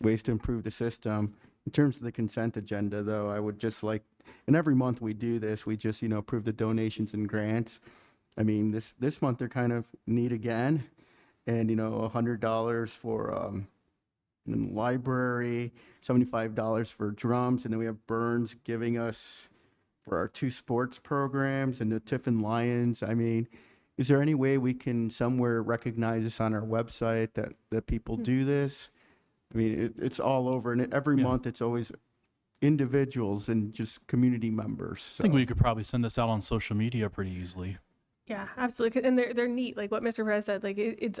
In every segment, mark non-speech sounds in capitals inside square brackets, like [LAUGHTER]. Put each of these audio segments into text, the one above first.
ways to improve the system. In terms of the consent agenda, though, I would just like, and every month we do this, we just, you know, approve the donations and grants. I mean, this, this month they're kind of neat again. And, you know, a hundred dollars for, um, the library, seventy-five dollars for drums, and then we have Burns giving us for our two sports programs and the Tiffin Lions. I mean, is there any way we can somewhere recognize this on our website that, that people Hmm. do this? I mean, it, it's all over, and every month it's always individuals and just community members. I So. think we could probably send this out on social media pretty easily. Yeah, absolutely. 'Cause- And they're they're neat. Like what Mr. Perez said, like it, it's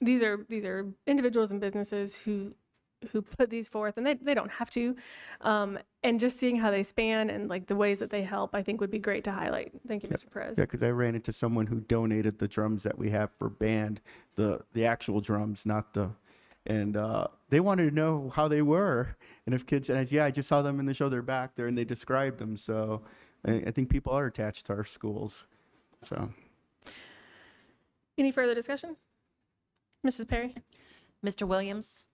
these are these are individuals and businesses who who put these forth and they, they don't have to. Um, and just seeing how they span and like the ways that they help, I think would be great to highlight. Thank you, Mr. Perez. Yeah, because I ran into someone who donated the drums that we have for band, the the actual drums, not the, and uh, they wanted to know how they were and if kids. And I, yeah, I just saw them in the show. They're back there and they described them. So I, I think people are attached to our schools. So Any further discussion? Mrs. Perry? Mr. Williams?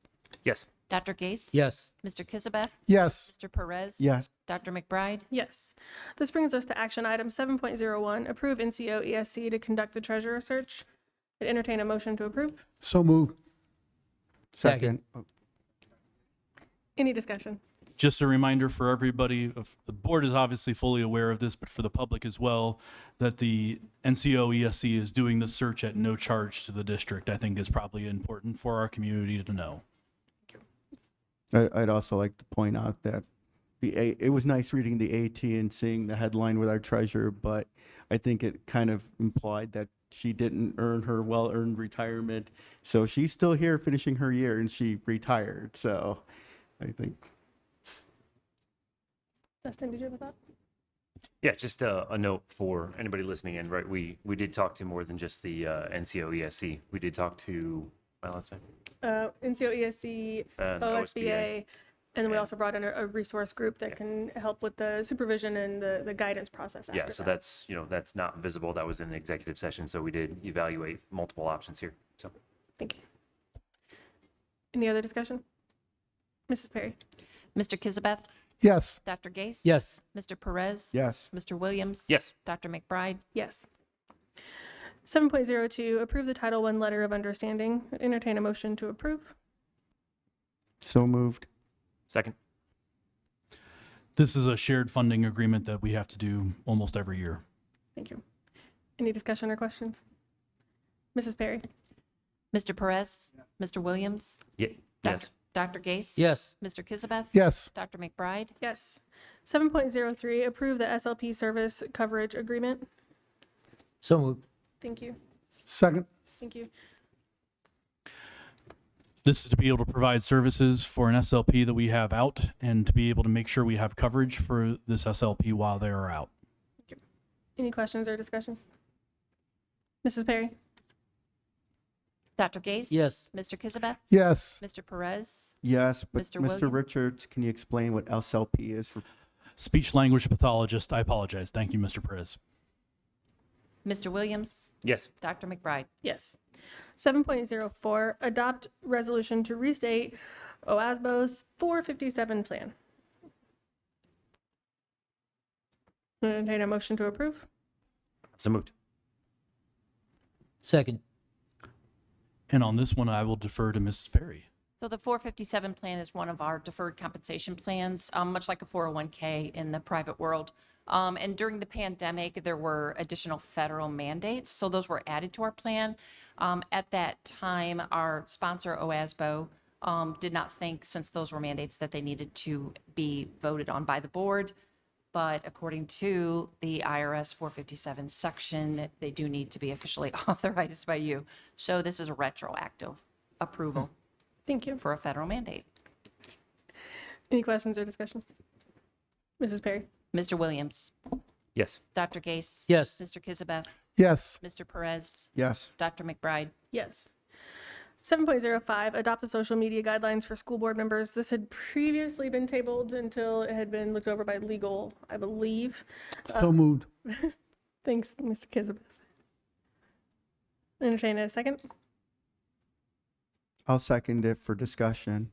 Yes. Dr. Gase? Yes. Mr. Kizabeth? Yes. Mr. Perez? yes, Dr. McBride? Yes. This brings us to action item 7.01, approve NCO ESC E to conduct the treasurer search. I'd Entertain a motion to approve. So moved. second. Second. Any discussion? Just a reminder for everybody, of- the board is obviously fully aware of this, but for the public as well, that the NCO ESC E is doing the search at no charge to the district, I think is probably important for our community to know. I, I'd also like to point out that the A, it was nice reading the AT and seeing the headline with our treasurer, but I think it kind of implied that she didn't earn her well-earned retirement. So she's still here finishing her year and she retired. So I think, Justin, did you have a thought? Yeah, just a, a note for anybody listening in, right? We we did talk to more than just the uh, NCO ESC. We did talk to well, uh, it's Uh, NCO ESC, And OSBA, and then we And- also brought in a, a resource group that can help with the supervision and the, the guidance process after yeah. So that. that's you know that's not visible. That was in an executive session, so we did evaluate multiple options here. So Thank you. Any other discussion? Mrs. Perry? Mr. Kizabeth? Yes. Dr. Gase? Yes. Mr. Perez? yes, Mr. Williams? yes, Dr. McBride? Yes. 7.02, approve the Title I Letter of Understanding. Entertain a motion to approve. so moved. second. This is a shared funding agreement that we have to do almost every year. Thank you. Any discussion or questions? Mrs. Perry? Mr. Perez? Mr. Williams? Yeah, Doc- yes, Dr. Gase? Yes. Mr. Kizabeth? Yes. Dr. McBride? Yes. 7.03, approve the SLP service coverage agreement. So moved. Thank you. Second. Thank you. This is to be able to provide services for an SLP that we have out and to be able to make sure we have coverage for this SLP while they are out. Any questions or discussion? Mrs. Perry? Dr. Gase? Yes. Mr. Kizabeth? Yes. Mr. Perez? Yes, but Mr. Mr. William? Richards, can you explain what SLP is for? Speech language pathologist, I apologize. Thank you, Mr. Perez. Mr. Williams? yes, Dr. McBride? Yes. 7.04, adopt resolution to restate OASBO's 457 plan. Entertain a motion to approve. so moved. Second. And on this one, I will defer to Mrs. Perry. So the 457 plan is one of our deferred compensation plans, um, much like a 401K in the private world. Um, And during the pandemic, there were additional federal mandates, so those were added to our plan. Um, At that time, our sponsor, OASBO, um, did not think, since those were mandates, that they needed to be voted on by the board. But according to the IRS 457 section, they do need to be officially [LAUGHS] authorized by you. So this is a retroactive approval Thank you. for a federal mandate. Any questions or discussion? Mrs. Perry? Mr. Williams, Yes, Dr. Gase, Yes. Mr. Kizabeth, Yes. Mr. Perez, Yes, Dr. McBride. Yes. 7.05, adopt the social media guidelines for school board members. This had previously been tabled until it had been looked over by legal, I believe. So moved. Thanks, Mr. Kizabeth. Entertain a second. I'll second it for discussion.